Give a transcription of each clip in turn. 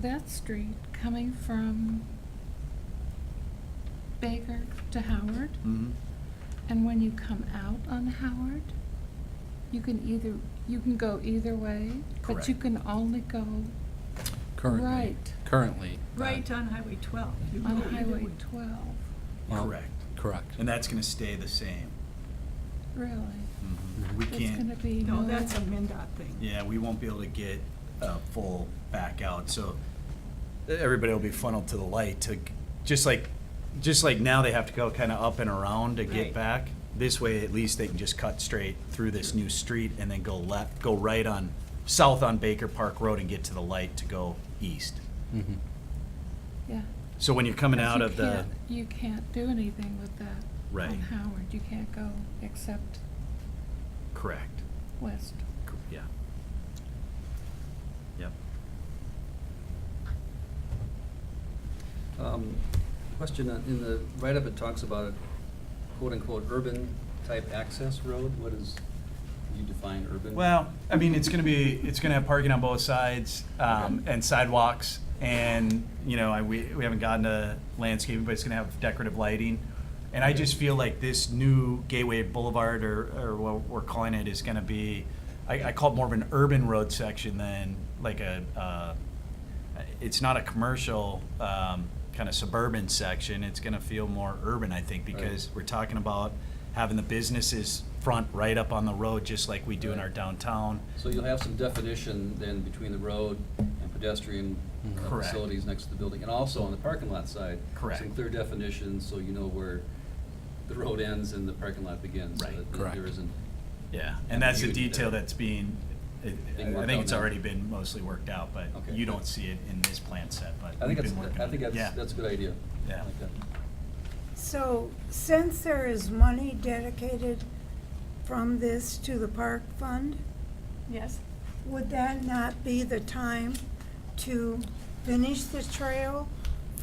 that street coming from Baker to Howard, Mhm. and when you come out on Howard, you can either, you can go either way, but you Correct. can only go currently. Right. Currently. that- Right on Highway 12. You on go either Highway way. twelve, well, Correct. Correct. And that's gonna stay the same. really. Mhm. We It's gonna can't, be. No, no- that's a MinDOT thing. yeah, we won't be able to get a full back out, so everybody will be funneled to the light to, just like, just like now they have to go kind of up and around to get Right. back. This way, at least they can just cut straight through this new street and then go left, go right on, south on Baker Park Road and get to the light to go east. Mhm. Yeah. So when you're coming But out you of the, can't- You can't do anything with that. Right. On Howard, you can't go except correct, west. Cor- yeah. Yep. Um, Question on- in the write-up, it talks about quote-unquote urban-type access road. What is, you define urban? Well, I mean, it's gonna be, it's gonna have parking on both sides, um, Okay. and sidewalks, and, you know, I, we, we haven't gotten to landscaping, but it's gonna have decorative lighting. And I just feel like this new Gateway Boulevard, or, or what we're calling it, is gonna be, I, I call it more of an urban road section than like a, uh, it's not a commercial, um, kind of suburban section, it's gonna feel more urban, I think, Right. because we're talking about having the businesses front right up on the road, just like we do in our Right. downtown. So you'll have some definition then between the road and pedestrian uh, Correct. facilities next to the building. And also on the parking lot side. Correct. Some clear definitions, so you know where the road ends and the parking lot begins. so Right. that Correct. There isn't, Yeah, and that's the Ambiguity detail there. that's being, it- Being I worked think out it's now. already been mostly worked out, but Okay. you don't see it in this plan set, but I we've think that's, been working I on think it. that's, Yeah. that's a good idea. Yeah. I like that. So since there is money dedicated from this to the park fund, Yes, would that not be the time to finish the trail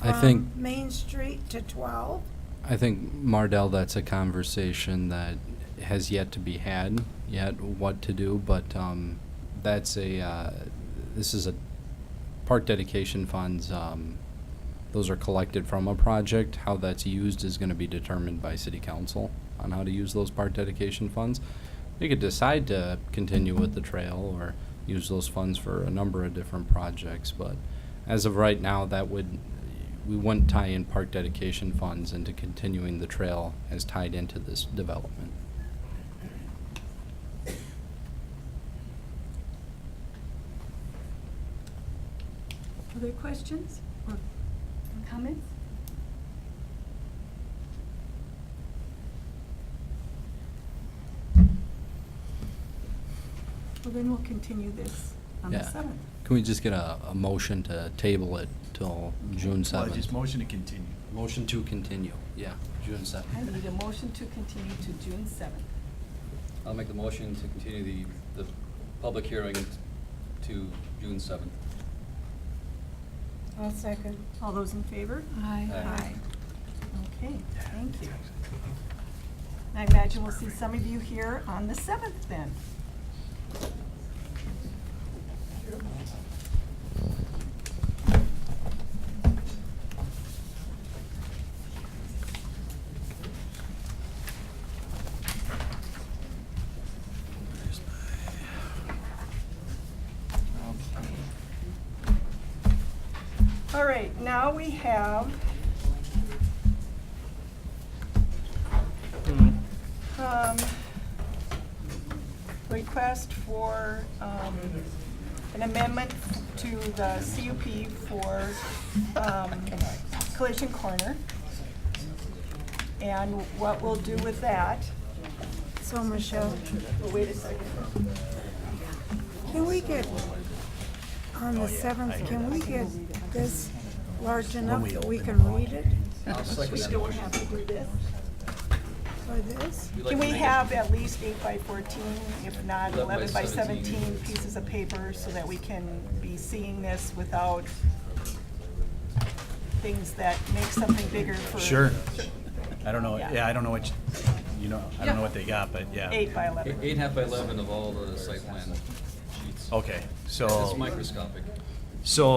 I think- from Main Street to 12? I think, Mardell, that's a conversation that has yet to be had, yet what to do, but um, that's a, uh, this is a, park dedication funds, um, those are collected from a project. How that's used is going to be determined by city council on how to use those park dedication funds. They could decide to continue with the trail or use those funds for a number of different projects, but as of right now, that would, we wouldn't tie in park dedication funds into continuing the trail as tied into this development. other questions or comments? Well, then we'll continue this on the Yeah. 7th. Can we just get a, a motion to table it till June Well, I just seventh? motion to continue. Motion to continue, yeah, June I seventh. need a motion to continue to June seventh. I'll make the motion to continue the, the public hearing to June seventh. I'll second. All those in favor? I. Aye. Okay, thank you. I imagine we'll see some of you here on the seventh then. All right, now we have um, request for um, an amendment to the CUP for um, Collision Corner. And what we'll do with that, So Michelle, well, wait a second. can we get, on the 7th, can we get this large enough that we can read it I'll second We that don't motion. have to do this. for this? We'd like Can to we make it- have at least eight by fourteen, if not eleven by 17. seventeen pieces of paper so that we can be seeing this without things that make something bigger for Sure. I don't know, Yeah. yeah, I don't know what, you- you know, I don't know Yeah. what they got, but yeah. eight by Eight- eleven? Eight and a half by eleven of all the site plan sheets. Okay, so. It's microscopic. So